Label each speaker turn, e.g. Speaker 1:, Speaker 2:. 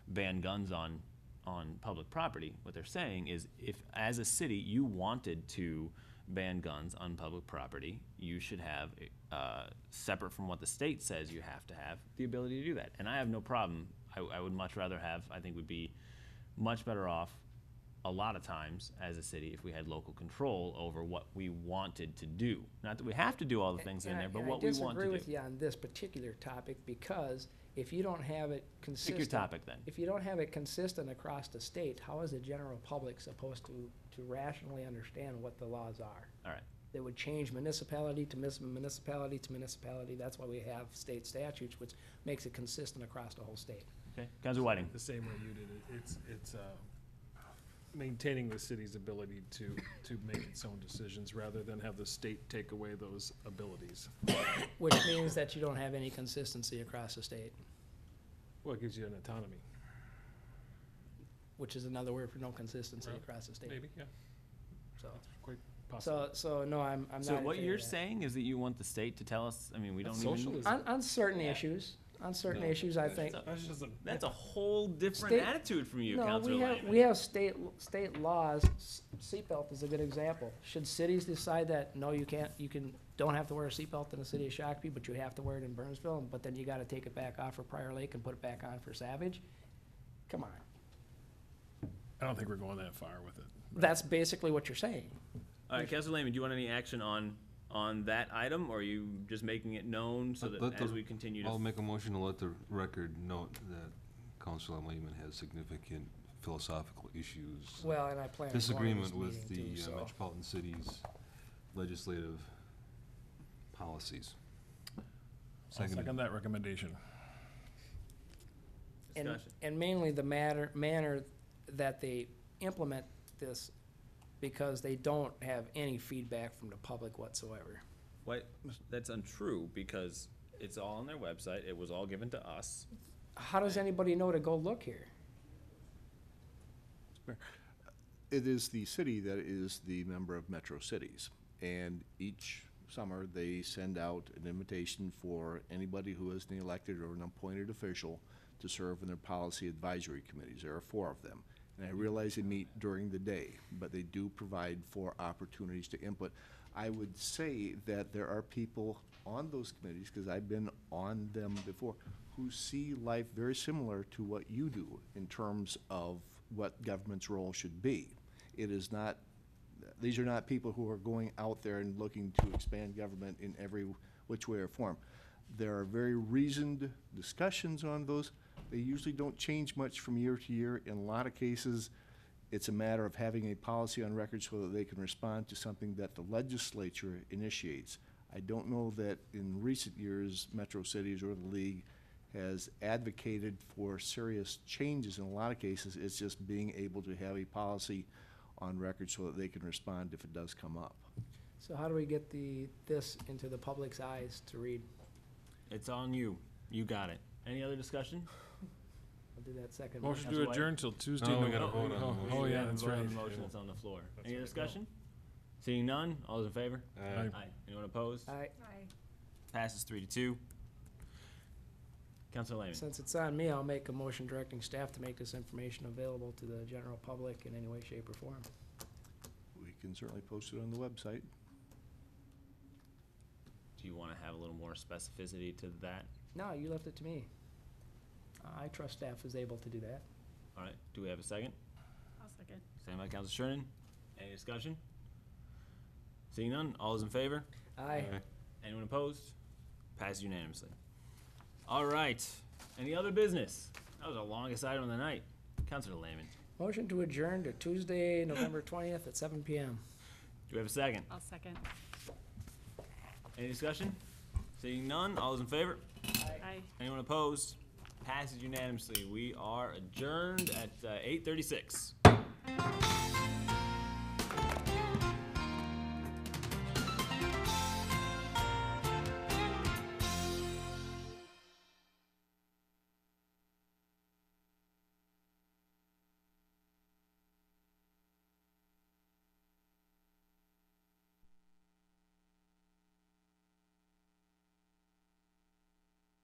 Speaker 1: ban guns on, on public property. What they're saying is if, as a city, you wanted to ban guns on public property, you should have, uh, separate from what the state says you have to have, the ability to do that. And I have no problem. I, I would much rather have, I think would be much better off a lot of times as a city if we had local control over what we wanted to do. Not that we have to do all the things in
Speaker 2: Eh, And I-
Speaker 1: there, but
Speaker 2: and I
Speaker 1: what we want to
Speaker 2: disagree
Speaker 1: do.
Speaker 2: with you on this particular topic, because if you don't have it
Speaker 1: Pick
Speaker 2: consistent.
Speaker 1: your topic then.
Speaker 2: If you don't have it consistent across the state, how is the general public supposed to, to rationally understand what the laws are?
Speaker 1: All right.
Speaker 2: They would change municipality to mis- municipality to municipality, that's why we have state statutes, which makes it consistent across the whole state.
Speaker 1: Okay. Councilor Whiting.
Speaker 3: The same way you did it. It's, it's, uh, maintaining the city's ability to, to make its own decisions rather than have the state take away those abilities.
Speaker 2: Which means that you don't have any consistency across the state,
Speaker 3: Well, it gives you an autonomy,
Speaker 2: which is another word for no consistency across the state,
Speaker 3: maybe, yeah,
Speaker 2: so.
Speaker 3: quite possible.
Speaker 2: So, so, no, I'm, I'm not.
Speaker 1: So
Speaker 2: in
Speaker 1: what
Speaker 2: favor
Speaker 1: you're
Speaker 2: of that.
Speaker 1: saying is that you want the state to tell us, I mean, we don't
Speaker 3: That's
Speaker 1: even.
Speaker 3: socialism.
Speaker 2: On, on certain
Speaker 1: Yeah.
Speaker 2: issues, on certain
Speaker 3: No.
Speaker 2: issues, I think.
Speaker 1: That's
Speaker 3: That's just a,
Speaker 1: That's a whole different
Speaker 2: State-
Speaker 1: attitude from you,
Speaker 2: No,
Speaker 1: Councilor
Speaker 2: we have, we have state, state laws, S- seatbelt is a good example. Should cities decide that, no, you can't, you can, don't have to wear a seatbelt in the city of Shakopee, but you have to wear it in Burnsville, but then you gotta take it back off for Prior Lake and put it back on for Savage? Come on,
Speaker 3: I don't think we're going that far with it.
Speaker 2: that's basically what you're saying.
Speaker 1: All right, Councilor Lehman, do you want any action on, on that item, or are you just making it known so
Speaker 4: Let-
Speaker 1: that
Speaker 4: let the-
Speaker 1: as we continue
Speaker 4: I'll
Speaker 1: to?
Speaker 4: make a motion to let the record note that Councilor Lehman has significant philosophical issues.
Speaker 2: Well, and I plan on going to this
Speaker 4: Disagreement with
Speaker 2: meeting
Speaker 4: the
Speaker 2: too,
Speaker 4: uh,
Speaker 2: so.
Speaker 4: metropolitan cities legislative policies.
Speaker 3: I'll
Speaker 4: Seconded.
Speaker 3: second that recommendation.
Speaker 2: and,
Speaker 1: Discussion.
Speaker 2: and mainly the matter, manner that they implement this, because they don't have any feedback from the public whatsoever.
Speaker 1: Why, that's untrue, because it's all on their website, it was all given to us.
Speaker 2: How does anybody know to go look here?
Speaker 5: It is the city that is the member of Metro Cities, and each summer, they send out an invitation for anybody who is an elected or an appointed official to serve on their policy advisory committees. There are four of them. And I realize they meet during the day, but they do provide for opportunities to input. I would say that there are people on those committees, because I've been on them before, who see life very similar to what you do in terms of what government's role should be. It is not these are not people who are going out there and looking to expand government in every which way or form. There are very reasoned discussions on those. They usually don't change much from year to year. In a lot of cases, it's a matter of having a policy on record so that they can respond to something that the legislature initiates. I don't know that in recent years, Metro Cities or the league has advocated for serious changes. In a lot of cases, it's just being able to have a policy on record so that they can respond if it does come up.
Speaker 2: So how do we get the, this into the public's eyes to read?
Speaker 1: It's on you, you got it. Any other discussion?
Speaker 2: I'll do that second. one.
Speaker 3: Motion
Speaker 1: Councilor
Speaker 3: to
Speaker 1: White?
Speaker 3: adjourn till Tuesday.
Speaker 4: No, we
Speaker 3: Nov-
Speaker 4: gotta vote on the
Speaker 3: oh,
Speaker 4: motion.
Speaker 3: Oh,
Speaker 1: We
Speaker 3: yeah,
Speaker 1: haven't
Speaker 3: that's
Speaker 1: voted on
Speaker 3: right.
Speaker 1: the motion that's on the floor.
Speaker 3: That's
Speaker 1: Any
Speaker 3: right, no.
Speaker 1: discussion? Seeing none, all those in favor?
Speaker 3: Aye.
Speaker 1: Aye. Anyone opposed?
Speaker 2: I,
Speaker 1: Passes three to two. Councilor Lehman.
Speaker 2: since it's on me, I'll make a motion directing staff to make this information available to the general public in any way, shape, or form.
Speaker 5: We can certainly post it on the website.
Speaker 1: Do you want to have a little more specificity to that?
Speaker 2: No, you left it to me. I trust staff is able to do that.
Speaker 1: All right, do we have a second?
Speaker 6: I'll second.
Speaker 1: Second by Councilor Sherman. Any discussion? Seeing none, all those in favor?
Speaker 2: Aye.
Speaker 1: Anyone opposed? Passed unanimously. All right, any other business? That was the longest item of the night. Councilor Lehman,
Speaker 2: Motion to adjourn to Tuesday, November twentieth at seven PM.
Speaker 1: do we have a second?
Speaker 6: I'll second.
Speaker 1: Any discussion? Seeing none, all those in favor?
Speaker 6: Aye.
Speaker 1: Anyone opposed? Passes unanimously. We are adjourned at uh, 8:36.